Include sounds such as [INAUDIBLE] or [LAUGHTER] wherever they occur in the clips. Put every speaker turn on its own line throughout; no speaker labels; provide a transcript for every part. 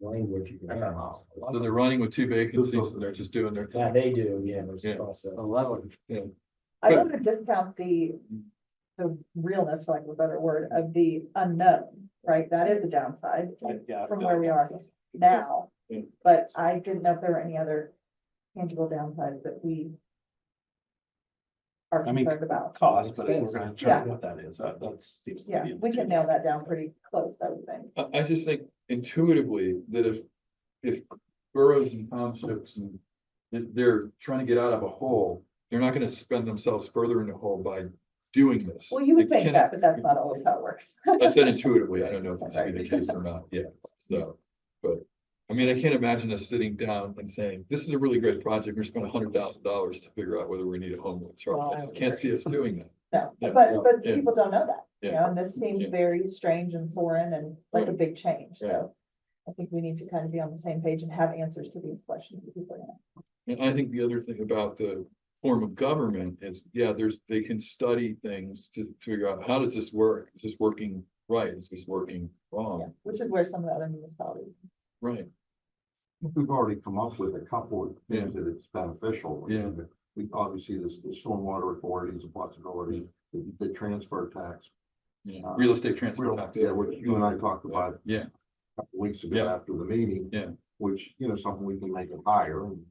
language. you can have.
So they're running with two vacancies and they're just doing their
Yeah,
thing.
they do, yeah, there's a
Yeah.
process.
Eleven.
I don't want to discount the, the realness, for lack of a better word, of the unknown, right? That is a downside from where we are now.
Mm.
But I didn't know if there were any other tangible downsides that we are
I mean,
concerned about.
Cost, but we're gonna
Yeah.
try what that is, that, that seems. to
Yeah,
be-
we can nail that down pretty close, I would think.
I, I just think intuitively that if, if boroughs and townships and if they're trying to get out of a hole, they're not gonna spend themselves further in the hole by doing this.
Well, you would
They
think that,
cannot-
but that's not always how it works.
I said intuitively, I don't know if that's
Right.
the case or not, yeah, so, but, I mean, I can't imagine us sitting down and saying, this is a really great project, we're spending a hundred thousand dollars to figure out whether we need a homeless
Well,
shelter,
I
I can't see us doing that.
No,
Yeah,
but, but
yeah.
people don't know that, you
Yeah.
know, and this seems
Yeah.
very strange and foreign and like a big change,
Yeah.
so. I think we need to kind of be on the same page and have answers to these questions. that people have.
And I think the other thing about the form of government is, yeah, there's, they can study things to figure out, how does this work? Is this working right? Is this working
Yeah,
wrong?
Which is where some of the other municipalities,
Right,
We've already come up with a couple of things that it's beneficial.
Yeah.
We, obviously, this, the stormwater authority is a possibility, the, the transfer tax.
yeah,
Uh,
real estate transfer
real-
tax.
Yeah, which you and I talked about.
Yeah.
a couple Weeks ago
Yeah.
after the meeting.
Yeah.
Which, you know, something we can make it higher. and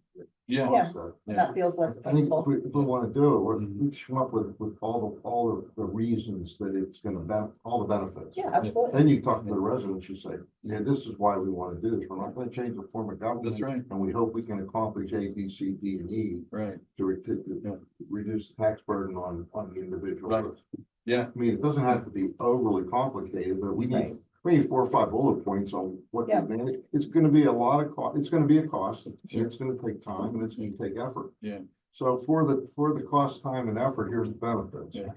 Yeah,
Yeah.
so-
and
Yeah.
that feels less
I think if
painful.
we, if we wanna do it, we,
Mm-hmm.
we just come up with, with all the, all of the reasons that it's gonna benefit, all the benefits.
Yeah, absolutely.
Then you talk to the residents, you say, yeah, this is why we wanna do this, we're not gonna change the form of government.
that's right,
And we hope we can accomplish A, B, C, D, and E
right,
to re- to- to
Yeah.
reduce the tax burden on, on the individual.
Right. yeah,
I mean, it doesn't have to be overly complicated, but we need,
Right.
we need four or five bullet points on what the
Yeah.
advantage, it's gonna be a lot of cost, it's gonna be a cost, and it's gonna take time, and it's gonna take effort.
Yeah.
So for the, for the cost, time, and effort, here's the benefits.
Yeah.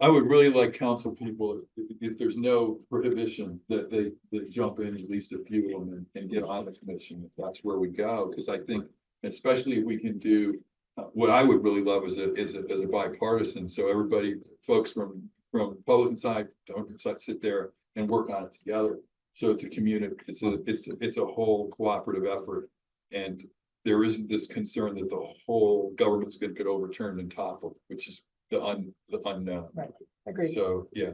I would really like council people, if, if there's no prohibition, that they, they jump in at least a few of them and, and get on the commission, if that's where we go, because I think, especially if we can do, uh, what I would really love is a, is a, is a bipartisan, so everybody, folks from, from Republican side, Democrat side, sit there and work on it together. So it's a community, it's a, it's, a- it's a whole cooperative effort, and there isn't this concern that the whole government's gonna get overturned and toppled, which is the un, the unknown.
Agreed.
So, yeah,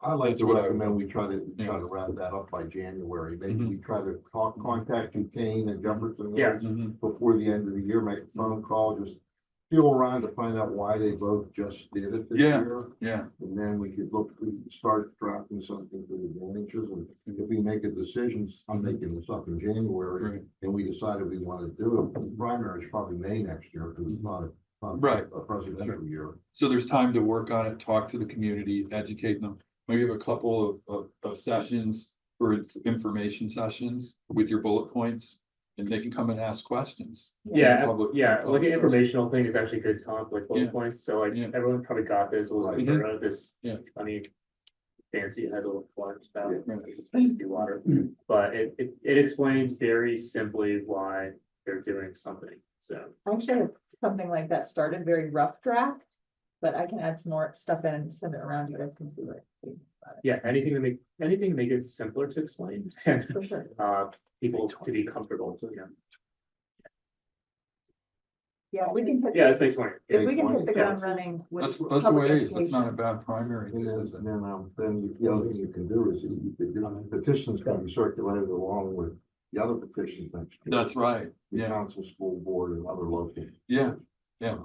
I like
That's
to
what I-
recommend we try to,
Yeah.
try to wrap that up by January, maybe
Mhm.
we try to talk, contact you, Kane and Jefferson.
Yeah.
Mm-hmm,
before the end of the year, make a phone call, just feel around to find out why they both just did it this
Yeah.
year.
yeah,
And then we could look, we could start drafting something for the advantages, and if we make a decision, I'm making this up in January,
Right.
and we decided we want to do it, the primary is probably May next year, because it's not a not
Right.
a presidential year.
so there's time to work on it, talk to the community, educate them. Maybe have a couple of, of, of sessions or inf- information sessions with your bullet points. And they can come and ask questions.
Yeah,
Public-
yeah, like
public
an
service.
informational thing is actually good, Tom, like
Yeah.
bullet points, so like
Yeah.
everyone probably got this, it was like,
Right.
uh, this.
Yeah.
I mean. Fancy, it has a little flash
Yeah.
down, do water, but it, it, it explains very simply why they're doing something, so.
I Actually, have something like that started, very rough draft, but I can add some more stuff in and send it around. You guys can see it.
Yeah, anything to make, anything to make it simpler to explain, [LAUGHS]
For sure.
uh, people to be comfortable, you know.
Yeah, we can, hit-
yeah, that's makes sense.
if we can hit
Yeah.
the ground running
That's,
with.
that's the way
public
it is. That's
education.
not a bad primary,
And then,
is it?
and then, um, then you- the other thing you can do is you- you- the petitions can be circulated along with the other petitions next year.
That's right,
the
yeah,
council, school board and other local. Um,
yeah, yeah,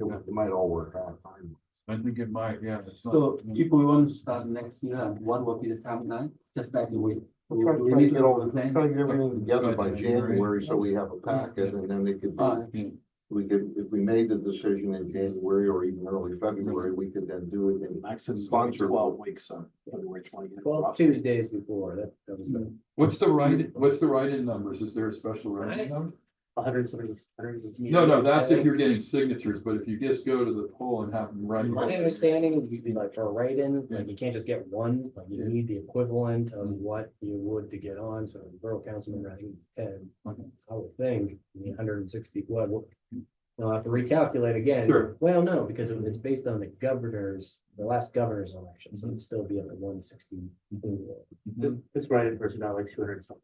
It might- it might all work out. fine.
I think it might, yeah, it's
So
not.
if we want to start next year, what will be the timeline, just like we. we-
Try
we
try to
need
get all,
to plan.
try to get everything together by
By January.
January, so we have a packet and then they could,
Alright.
Yeah.
we could, if we made the decision in January or even early February, we could then do it in. Sponsor. Twelve weeks on February twentieth.
Well, Tuesdays before, that, that was the.
What's the right, what's the write-in numbers? Is there a special write-in number?
hundred and seventy, hundred and eighty.
No, no, that's if you're getting signatures, but if you just go to the poll and have them write.
My understanding would be like for a write-in, like you can't just get one, like you need the equivalent of
Mm-hmm.
what you would to get on, so the borough councilman, I think, it's ten.
Okay.
I would think, hundred and sixty, what, what? I'll have to recalculate again.
Sure.
Well, no, because it- it's based on the governor's, the last
Mm-hmm.
governor's election, so it'd still be at the one sixty.
This writing person, I like two hundred something.